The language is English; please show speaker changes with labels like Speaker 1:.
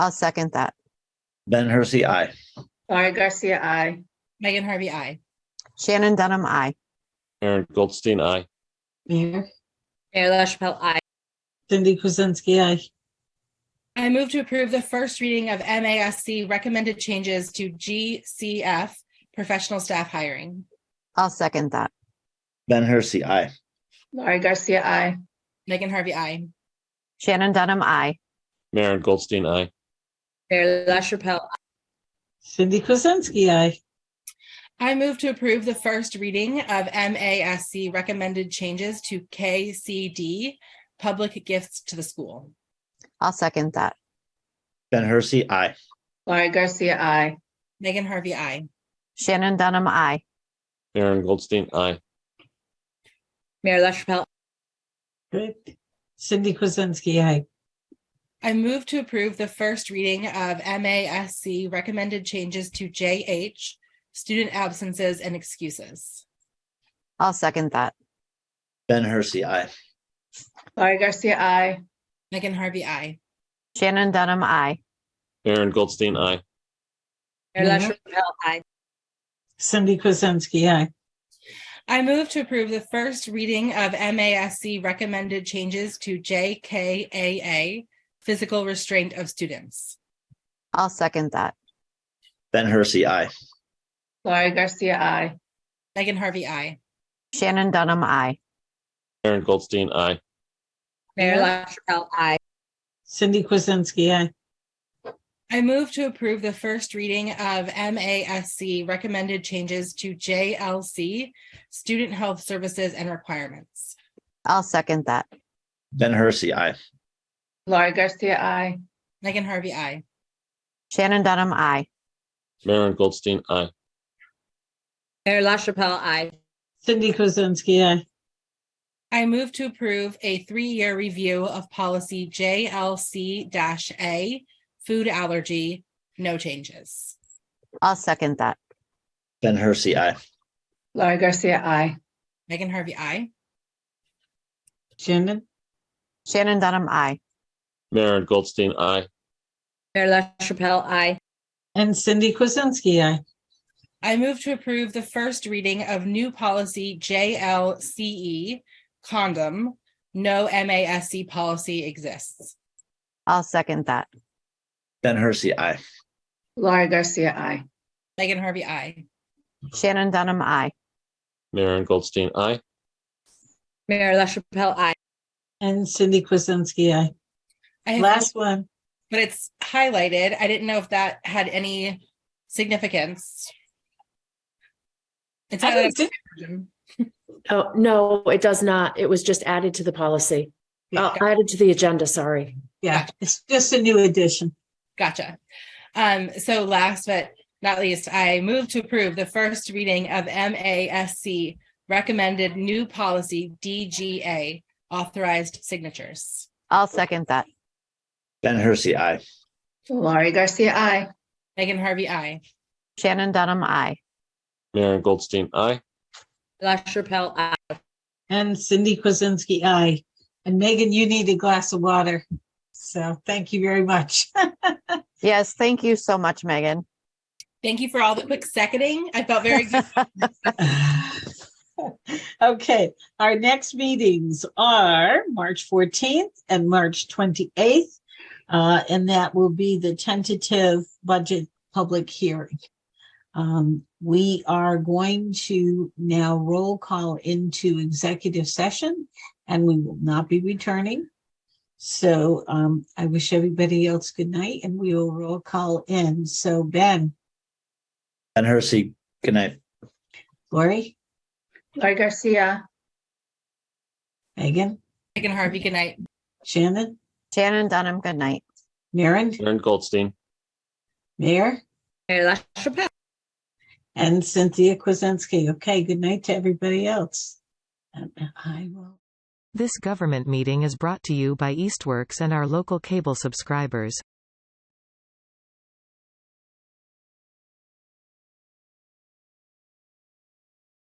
Speaker 1: I'll second that.
Speaker 2: Ben Hersey, aye.
Speaker 3: Laurie Garcia, I.
Speaker 4: Megan Harvey, I.
Speaker 1: Shannon Dunham, I.
Speaker 5: Aaron Goldstein, aye.
Speaker 6: Mayor
Speaker 4: Mayor LaChapelle, I.
Speaker 6: Cindy Kuzensky, aye.
Speaker 4: I move to approve the first reading of MASC recommended changes to GCF professional staff hiring.
Speaker 1: I'll second that.
Speaker 2: Ben Hersey, aye.
Speaker 3: Laurie Garcia, I.
Speaker 4: Megan Harvey, I.
Speaker 1: Shannon Dunham, I.
Speaker 5: Aaron Goldstein, aye.
Speaker 4: Mayor LaChapelle.
Speaker 6: Cindy Kuzensky, aye.
Speaker 4: I move to approve the first reading of MASC recommended changes to KCD public gifts to the school.
Speaker 1: I'll second that.
Speaker 2: Ben Hersey, aye.
Speaker 3: Laurie Garcia, I.
Speaker 4: Megan Harvey, I.
Speaker 1: Shannon Dunham, I.
Speaker 5: Aaron Goldstein, aye.
Speaker 4: Mayor LaChapelle.
Speaker 6: Great. Cindy Kuzensky, aye.
Speaker 4: I move to approve the first reading of MASC recommended changes to JH, student absences and excuses.
Speaker 1: I'll second that.
Speaker 2: Ben Hersey, aye.
Speaker 3: Laurie Garcia, I.
Speaker 4: Megan Harvey, I.
Speaker 1: Shannon Dunham, I.
Speaker 5: Aaron Goldstein, aye.
Speaker 6: Mayor LaChapelle, aye. Cindy Kuzensky, aye.
Speaker 4: I move to approve the first reading of MASC recommended changes to JKAA, physical restraint of students.
Speaker 1: I'll second that.
Speaker 2: Ben Hersey, aye.
Speaker 3: Laurie Garcia, I.
Speaker 4: Megan Harvey, I.
Speaker 1: Shannon Dunham, I.
Speaker 5: Aaron Goldstein, aye.
Speaker 6: Mayor
Speaker 4: LaChapelle, I.
Speaker 6: Cindy Kuzensky, aye.
Speaker 4: I move to approve the first reading of MASC recommended changes to JLC, student health services and requirements.
Speaker 1: I'll second that.
Speaker 2: Ben Hersey, aye.
Speaker 3: Laurie Garcia, I.
Speaker 4: Megan Harvey, I.
Speaker 1: Shannon Dunham, I.
Speaker 5: Aaron Goldstein, aye.
Speaker 4: Mayor LaChapelle, I.
Speaker 6: Cindy Kuzensky, aye.
Speaker 4: I move to approve a three-year review of policy JLC-A, food allergy, no changes.
Speaker 1: I'll second that.
Speaker 2: Ben Hersey, aye.
Speaker 3: Laurie Garcia, I.
Speaker 4: Megan Harvey, I.
Speaker 6: Shannon
Speaker 1: Shannon Dunham, I.
Speaker 5: Aaron Goldstein, aye.
Speaker 4: Mayor LaChapelle, I.
Speaker 6: and Cindy Kuzensky, aye.
Speaker 4: I move to approve the first reading of new policy JLCE, E, condom, no MASC policy exists.
Speaker 1: I'll second that.
Speaker 2: Ben Hersey, aye.
Speaker 3: Laurie Garcia, I.
Speaker 4: Megan Harvey, I.
Speaker 1: Shannon Dunham, I.
Speaker 5: Aaron Goldstein, aye.
Speaker 4: Mayor LaChapelle, I.
Speaker 6: And Cindy Kuzensky, aye.
Speaker 4: I have
Speaker 6: Last one.
Speaker 4: but it's highlighted. I didn't know if that had any significance. It's
Speaker 6: I
Speaker 4: highlighted.
Speaker 6: didn't see-
Speaker 7: Oh, no, it does not. It was just added to the policy. Oh, added to the agenda, sorry.
Speaker 6: Yeah, it's just a new addition.
Speaker 4: Gotcha. Um, so last but not least, I move to approve the first reading of MASC recommended new policy DGA authorized signatures.
Speaker 1: I'll second that.
Speaker 2: Ben Hersey, aye.
Speaker 3: Laurie Garcia, I.
Speaker 4: Megan Harvey, I.
Speaker 1: Shannon Dunham, I.
Speaker 5: Aaron Goldstein, aye.
Speaker 4: LaChapelle, I.
Speaker 6: And Cindy Kuzensky, aye. And Megan, you need a glass of water. So thank you very much.
Speaker 1: Yes, thank you so much, Megan.
Speaker 4: Thank you for all the quick seconding. I felt very good.
Speaker 6: Okay, our next meetings are March 14th and March 28th. uh, And that will be the tentative budget public hearing. Um, We are going to now roll call into executive session and we will not be returning. So um, I wish everybody else good night and we will roll call in. So Ben,
Speaker 2: Ben Hersey, good night.
Speaker 6: Lori,
Speaker 3: Laurie Garcia.
Speaker 6: Megan,
Speaker 4: Megan Harvey, good night.
Speaker 6: Shannon,
Speaker 1: Shannon Dunham, good night.
Speaker 6: Maren,
Speaker 5: Aaron Goldstein,
Speaker 6: Mayor.
Speaker 4: Mayor LaChapelle.
Speaker 6: And Cynthia Kuzensky. Okay, good night to everybody else. And I will.
Speaker 8: This government meeting is brought to you by Eastworks and our local cable subscribers.